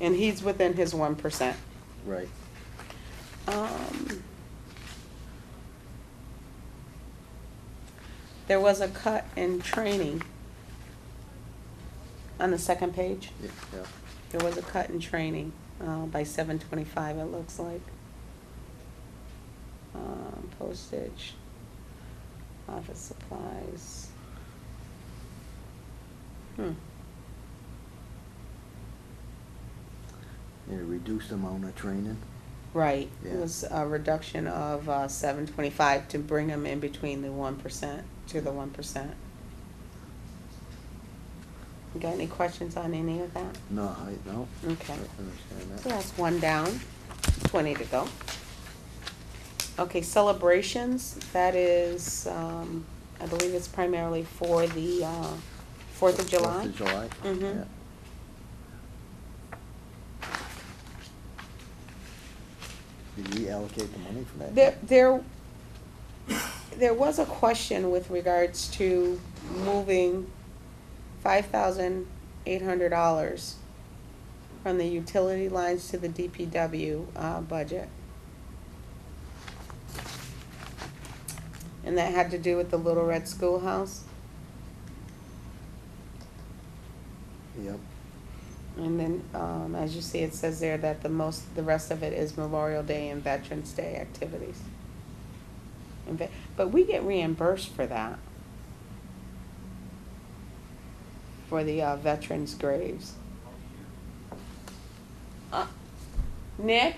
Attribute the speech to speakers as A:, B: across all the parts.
A: and he's within his one percent.
B: Right.
A: Um, There was a cut in training. On the second page,
B: Yeah, yeah.
A: there was a cut in training, uh, by seven twenty-five, it looks like. Um, postage, office supplies. Hmm,
B: Need to reduce the amount of training.
A: right, it
B: Yeah.
A: was a reduction of, uh, seven twenty-five to bring them in between the one percent, to the one percent. You got any questions on any of that?
B: No, I, no.
A: Okay.
B: I understand
A: So
B: that.
A: that's one down, twenty to go. Okay, celebrations, that is, um, I believe it's primarily for the, uh, Fourth of July.
B: Fourth of July.
A: Mhm.
B: yeah. Did we allocate the money for that?
A: There, there, there was a question with regards to moving five thousand eight hundred dollars from the utility lines to the DPW, uh, budget. And that had to do with the Little Red Schoolhouse,
B: Yep.
A: and then, um, as you see, it says there that the most, the rest of it is Memorial Day and Veterans Day activities. And ve- But we get reimbursed for that. For the uh, veterans' graves. Uh, Nick?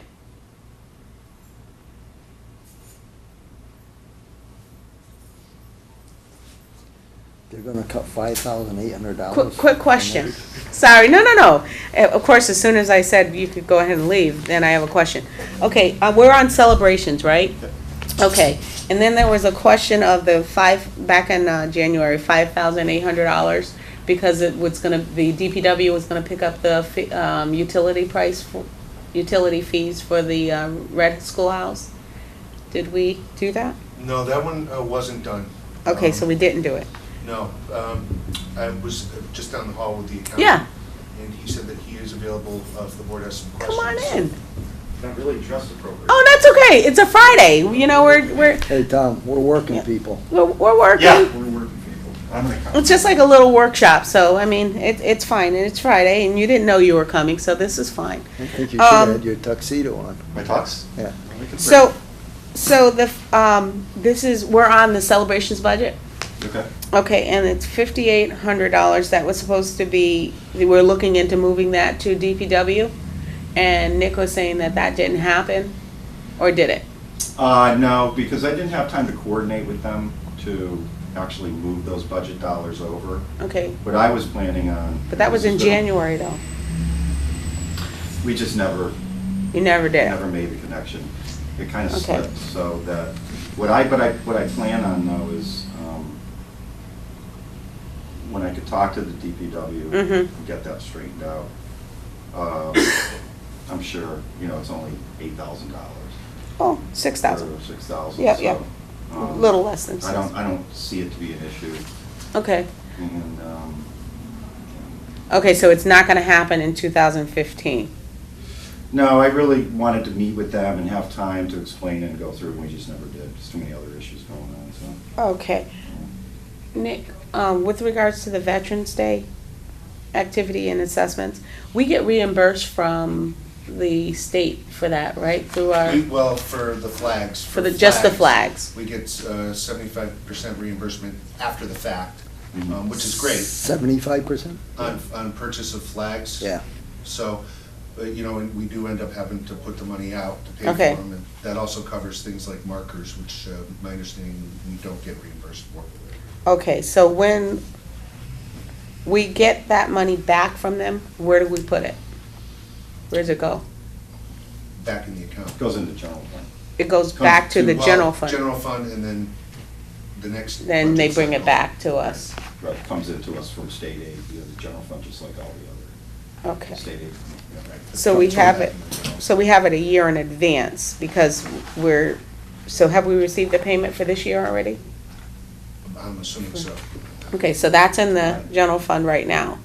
B: They're gonna cut five thousand eight hundred
A: Quick,
B: dollars.
A: quick question. Sorry, no, no, no. Uh, Of course, as soon as I said you could go ahead and leave, then I have a question. Okay, uh, we're on celebrations, right? Okay, and then there was a question of the five, back in, uh, January, five thousand eight hundred dollars because it was gonna, the DPW was gonna pick up the, fi- um, utility price for, utility fees for the, uh, red schoolhouse. Did we do that?
C: No, that one uh, wasn't done.
A: Okay,
C: Um,
A: so we didn't do it.
C: No, um, I was uh, just down the hall with the accountant.
A: Yeah,
C: And he said that he is available uh, if the board has some
A: come on
C: questions.
A: in.
D: Not really dress appropriate.
A: Oh, that's okay. It's a Friday. You know, we're, we're,
B: Hey, Tom, we're working people.
A: We're, we're working.
D: Yeah, we're working people. I'm gonna come.
A: It's just like a little workshop, so I mean, it, it's fine, and it's Friday, and you didn't know you were coming, so this is fine.
B: I think you should
A: Um,
B: have had your tuxedo on.
D: My talks?
B: Yeah.
D: We can
A: So, so the, f- um, this is, we're on the celebrations budget?
D: print. Okay.
A: Okay, and it's fifty-eight hundred dollars, that was supposed to be, we're looking into moving that to DPW, and Nick was saying that that didn't happen, or did it?
D: Uh, no, because I didn't have time to coordinate with them to actually move those budget dollars over.
A: Okay,
D: What I was planning on.
A: but that was in January, though,
D: We just never,
A: you never did.
D: never made the connection. It kind of
A: Okay.
D: slipped, so that, what I, but I, what I plan on though is, um, when I could talk to the DPW.
A: Mhm.
D: and Get that straightened out. Um, I'm sure, you know, it's only eight thousand dollars.
A: Oh, six thousand,
D: Six thousand. um,
A: Yep, yep. little less than
D: I
A: six.
D: don't, I don't see it to be an issue,
A: Okay.
D: and, um,
A: Okay, so it's not gonna happen in two thousand fifteen.
D: no, I really wanted to meet with them and have time to explain and go through, and we just never did, just too many other issues going on, so.
A: Okay. Nick, um, with regards to the Veterans Day activity and assessments, we get reimbursed from the state for that, right, through our,
C: We- Well, for the flags.
A: for the, just the flags?
C: We get uh, seventy-five percent reimbursement after the fact,
D: Mm-hmm.
C: um, which is great,
B: Seventy-five percent?
C: on, on purchase of flags.
B: Yeah.
C: So, uh, you know, and we do end up having to put the money out to pay
A: Okay.
C: for them. and That also covers things like markers, which uh, my understanding, we don't get reimbursed for.
A: Okay, so when we get that money back from them, where do we put it? Where does it go?
C: Back in the account.
D: Goes into general plan.
A: It goes back to the
C: well,
A: general fund,
C: General fund, and then the next.
A: then they
C: budget
A: bring it
C: cycle.
A: back to us,
D: Right, comes into us from state aid, you know, the general fund, just like all the
A: okay.
D: other state aid.
C: Yeah, right.
A: So we
C: Comes
A: have
C: from
A: it-
C: that.
A: So we have it a year in advance because we're, so have we received the payment for this year already?
C: I'm assuming so.
A: Okay, so that's in the general fund right now.